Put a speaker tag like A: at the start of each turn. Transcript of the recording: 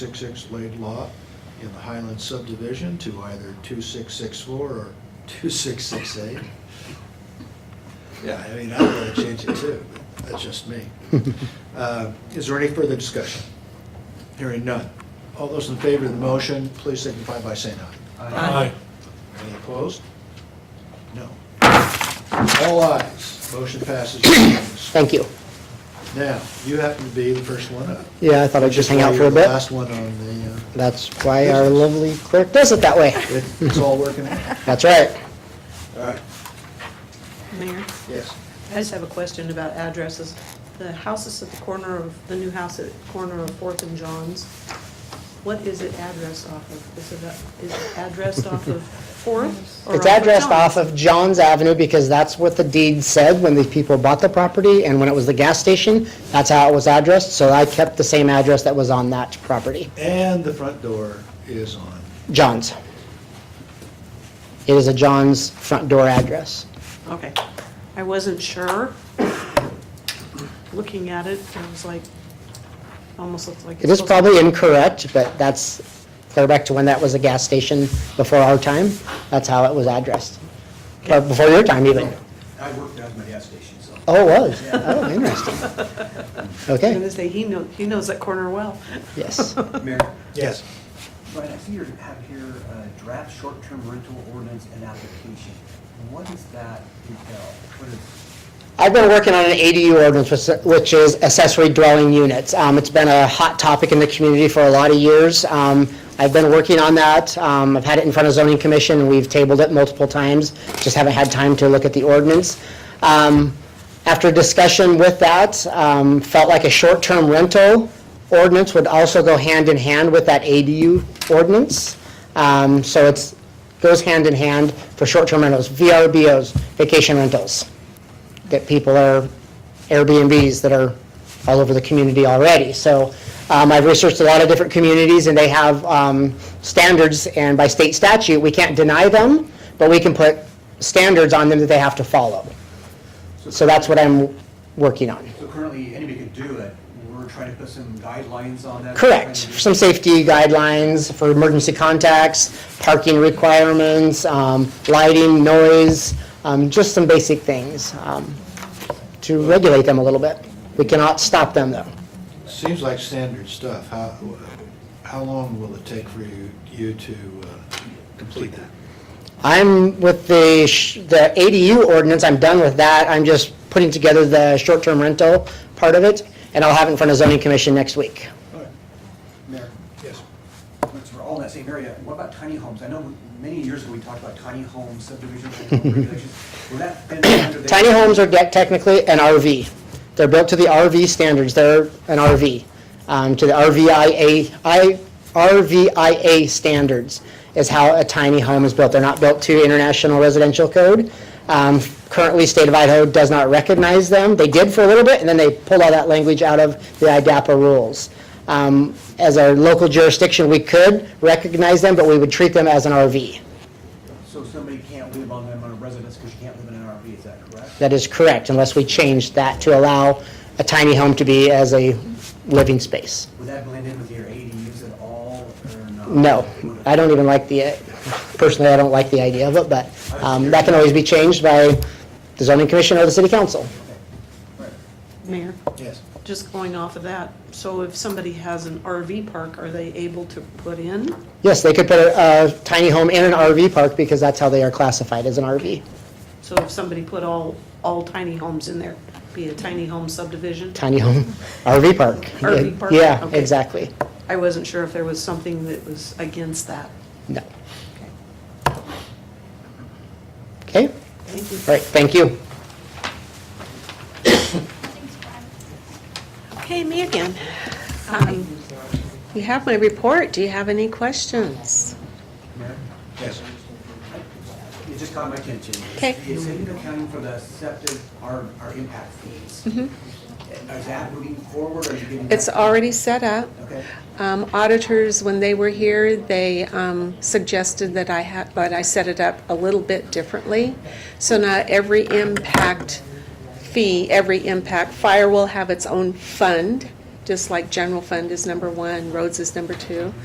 A: six-six Lade Law in the Highland subdivision to either two-six-six-four or two-six-six-eight. Yeah, I mean, I'm gonna change it too, but that's just me. Uh, Is there any further discussion? Hearing none. All those in favor of the motion, please signify by saying aye.
B: Aye.
A: Any opposed? No. All ayes. Motion passes unanimously.
C: Thank you.
A: Now, you happen to be the first one up.
C: Yeah, I thought I'd just hang out
A: You're
C: for a
A: the
C: bit.
A: Last one on the, uh,
C: That's why our lovely clerk does it that way.
A: it- it's all working out.
C: That's right.
A: All right,
B: Mayor,
A: yes.
B: I just have a question about addresses. The houses at the corner of, the new house at the corner of Fourth and Johns, what is it addressed off of? Is it, a- is it addressed off of Fourth? or
C: It's
B: off
C: addressed off
B: Johns?
C: of Johns Avenue because that's what the deed said when the people bought the property, and when it was the gas station, that's how it was addressed, so I kept the same address that was on that property,
A: And the front door is on.
C: Johns. It is a Johns front door address.
B: Okay. I wasn't sure. Looking at it, I was like, almost looked like.
C: It is
B: supposed to-
C: probably incorrect, but that's clear back to when that was a gas station before our time, that's how it was addressed. Or before your time even.
D: I worked out of my gas station, so.
C: Oh, it was? Oh, interesting.
B: I was gonna
C: Okay,
B: say, he knows, he knows that corner well.
C: yes.
D: Mayor,
A: Yes.
D: Brian, I see you have here uh draft short-term rental ordinance and application. What does that entail? What is,
C: I've been working on an ADU ordinance, which- which is accessory dwelling units. Um, It's been a hot topic in the community for a lot of years. Um, I've been working on that. Um, I've had it in front of zoning commission, we've tabled it multiple times, just haven't had time to look at the ordinance. Um, After discussion with that, um, felt like a short-term rental ordinance would also go hand in hand with that ADU ordinance. Um, So it's, goes hand in hand for short-term rentals, VRBOs, vacation rentals that people are Airbnbs that are all over the community already. So um, I've researched a lot of different communities, and they have um, standards, and by state statute, we can't deny them, but we can put standards on them that they have to follow. So that's what I'm working on.
D: so currently, anybody can do it. We're trying to put some guidelines on that.
C: Correct, some safety guidelines for emergency contacts, parking requirements, um, lighting, noise, um, just some basic things um, to regulate them a little bit. We cannot stop them, though.
A: Seems like standard stuff. How, how long will it take for you, you to uh, complete that?
C: I'm with the, sh- the ADU ordinance, I'm done with that, I'm just putting together the short-term rental part of it, and I'll have it in front of zoning commission next week.
D: Mayor,
A: Yes.
D: since we're all in that same area, what about tiny homes? I know many years ago, we talked about tiny home subdivisions and home regulations. Will that fit under the?
C: Tiny homes are de- technically an RV. They're built to the RV standards, they're an RV, um, to the RVIA, I, RVIA standards is how a tiny home is built. They're not built to International Residential Code. Um, Currently, state of Idaho does not recognize them. They did for a little bit, and then they pulled all that language out of the IDAPA rules. Um, As a local jurisdiction, we could recognize them, but we would treat them as an RV.
D: So somebody can't live on them on a residence because you can't live in an RV, is that correct?
C: That is correct, unless we change that to allow a tiny home to be as a living space.
D: Would that blend in with your ADUs at all or not?
C: No,
D: Would it?
C: I don't even like the, personally, I don't like the idea of it, but um, that can always be changed by the zoning commission or the city council.
D: Right.
B: Mayor,
A: Yes.
B: just going off of that, so if somebody has an RV park, are they able to put in?
C: Yes, they could put a a tiny home in an RV park because that's how they are classified as an RV,
B: So if somebody put all, all tiny homes in there, be a tiny home subdivision?
C: tiny home, RV park.
B: RV park,
C: Yeah,
B: okay.
C: exactly.
B: I wasn't sure if there was something that was against that.
C: No. Okay, all
B: Thank you.
C: right, thank you.
E: Okay, me again. Um, You have my report. Do you have any questions?
D: Mayor?
A: Yes.
D: It just caught my attention.
E: Okay.
D: Is it accounting for the septic, our, our impact fees? Is that moving forward or are you getting? that-
E: Mm-hmm. It's already set up.
D: Okay,
E: Um, Auditors, when they were here, they um, suggested that I had, but I set it up a little bit differently. So not every impact fee, every impact, fire will have its own fund just like general fund is number one, roads is number two.